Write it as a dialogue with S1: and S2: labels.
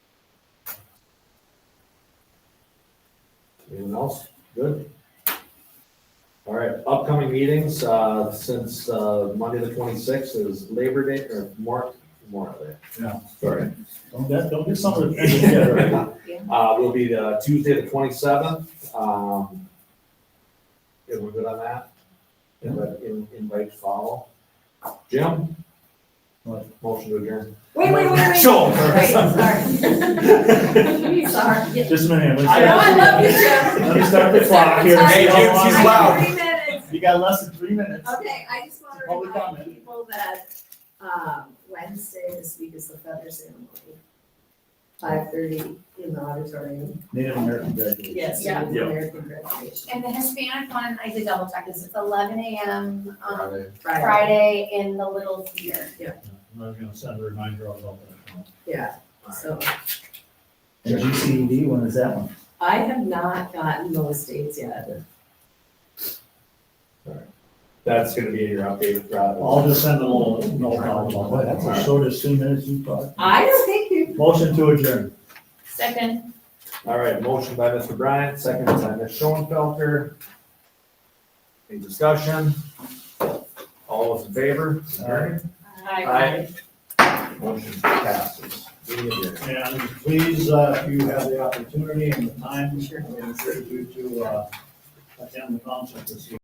S1: Anyone else? Good. All right, upcoming meetings, uh, since, uh, Monday the twenty-sixth is Labor Day or Mark, Memorial Day.
S2: Yeah.
S1: Sorry.
S2: Don't, that- don't get something.
S1: Yeah,
S2: Yeah,
S1: right. Uh, will be the Tuesday the twenty-seventh, um. Yeah, we're good on that. And let in- invite follow. Jim?
S2: What?
S1: Motion to adjourn.
S3: Wait, wait, wait, wait.
S1: Sure.
S3: Right, sorry. Sorry.
S2: Just a minute. let's-
S3: I know, I love you, Jim.
S2: Let me start the clock here.
S3: Sorry.
S1: Hey, Jim, she's
S3: I-
S1: loud.
S3: Three minutes.
S2: You got less than three minutes.
S3: Okay, I just want to
S2: Public
S3: remind
S2: comment.
S3: people that, um, Wednesday this week is the feather ceremony. Five thirty in the auditorium.
S2: Native American graduation.
S3: Yes.
S4: Yeah.
S3: Native American graduation.
S4: And the Hispanic one, I did double check this, it's eleven AM on
S3: Friday,
S4: Friday in the Little Theater.
S2: I was gonna send a reminder of that.
S3: yeah, so
S2: And GCED, when is that one?
S3: I have not gotten those dates yet.
S1: That's gonna be in your updated
S2: I'll
S1: product.
S2: just send a little note out about that. That's the shortest three minutes you've got.
S3: I don't think you,
S2: Motion to adjourn.
S4: Second.
S1: All right, motion by Mr. Bryant, second by Ms. Schoenfelder. Any discussion? All those in favor?
S2: Aye.
S1: Aye. Motion passes. Meeting adjourned.
S2: And please, uh, if you have the opportunity and the time, I would encourage you to, uh, attend the concert this evening.